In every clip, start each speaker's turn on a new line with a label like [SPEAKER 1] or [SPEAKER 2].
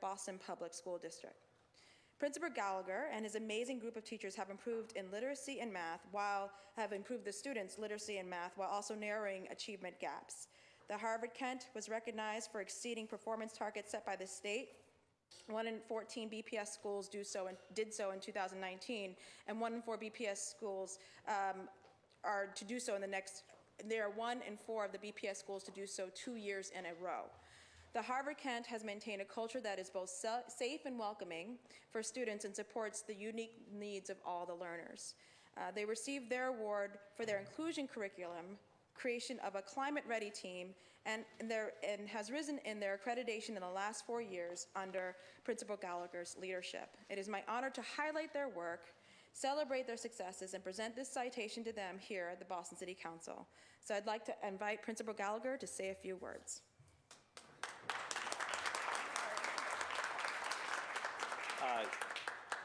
[SPEAKER 1] Boston Public School District. Principal Gallagher and his amazing group of teachers have improved in literacy and math while have improved the students' literacy and math while also narrowing achievement gaps. The Harvard Kent was recognized for exceeding performance targets set by the state. One in 14 BPS schools do so and did so in 2019, and one in four BPS schools um, are to do so in the next. There are one in four of the BPS schools to do so two years in a row. The Harvard Kent has maintained a culture that is both sa- safe and welcoming for students and supports the unique needs of all the learners. Uh, they received their award for their inclusion curriculum, creation of a climate ready team, and, their, and has risen in their accreditation in the last four years under Principal Gallagher's leadership. It is my honor to highlight their work celebrate their successes, and present this citation to them here at the Boston City Council. So I'd like to invite Principal Gallagher to say a few words.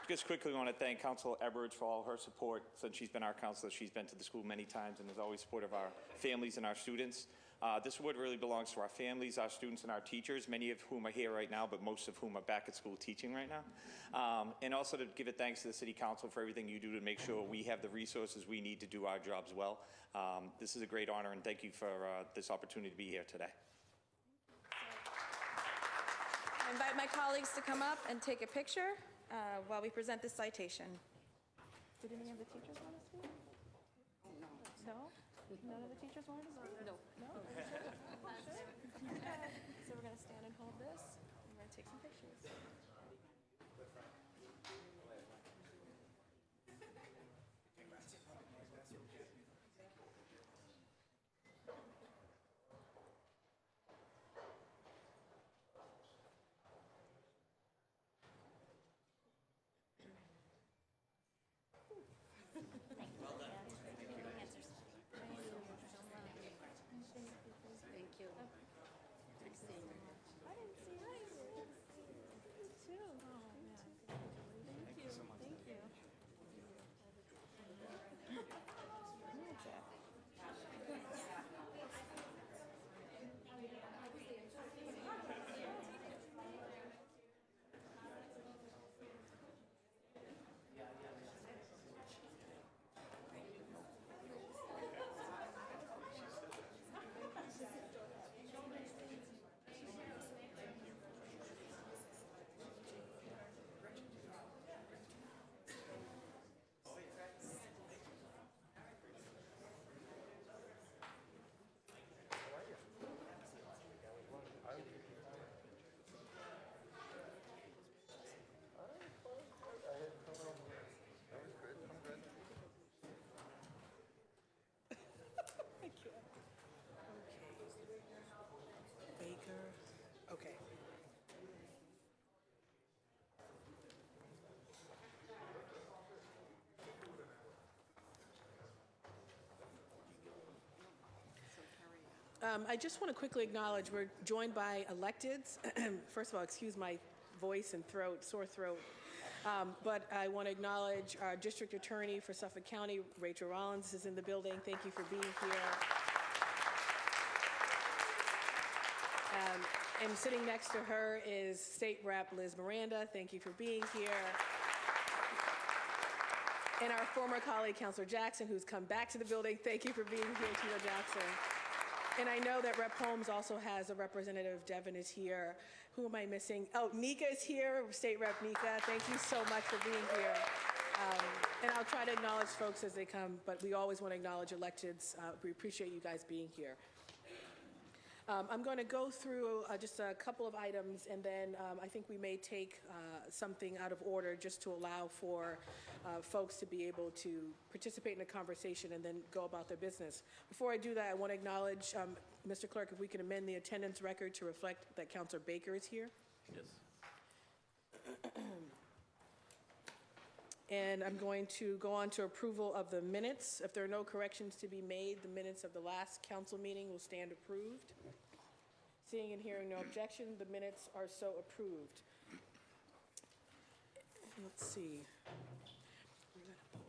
[SPEAKER 2] Just quickly want to thank Council Edwards for all her support since she's been our counselor. She's been to the school many times and is always supportive of our families and our students. Uh, this award really belongs to our families, our students, and our teachers, many of whom are here right now, but most of whom are back at school teaching right now. Um, and also to give a thanks to the City Council for everything you do to make sure we have the resources we need to do our jobs well. Um, this is a great honor, and thank you for uh, this opportunity to be here today.
[SPEAKER 1] I invite my colleagues to come up and take a picture uh, while we present this citation. Did any of the teachers want to speak? No? None of the teachers wanted to speak? No. No? So we're going to stand and hold this, and we're going to take some pictures.
[SPEAKER 3] Thank you.
[SPEAKER 4] I didn't see it. You too. Thank you. Thank you.
[SPEAKER 5] Baker. Okay. Um, I just want to quickly acknowledge we're joined by electeds. First of all, excuse my voice and throat, sore throat. Um, but I want to acknowledge our district attorney for Suffolk County, Rachel Rollins, is in the building. Thank you for being here. And sitting next to her is State Rep Liz Miranda. Thank you for being here. And our former colleague, Counselor Jackson, who's come back to the building. Thank you for being here, Tito Jackson. And I know that Rep Holmes also has a representative. Devin is here. Who am I missing? Oh, Nika is here, State Rep Nika. Thank you so much for being here. Um, And I'll try to acknowledge folks as they come, but we always want to acknowledge electeds. Uh, We appreciate you guys being here. Um, I'm going to go through uh, just a couple of items, and then um, I think we may take uh, something out of order just to allow for uh, folks to be able to participate in the conversation and then go about their business. Before I do that, I want to acknowledge, um, Mr. Clerk, if we can amend the attendance record to reflect that Counselor Baker is here.
[SPEAKER 6] Yes.
[SPEAKER 5] And I'm going to go on to approval of the minutes. If there are no corrections to be made, the minutes of the last council meeting will stand approved. Seeing and hearing no objection, the minutes are so approved. Let's see. We're gonna pull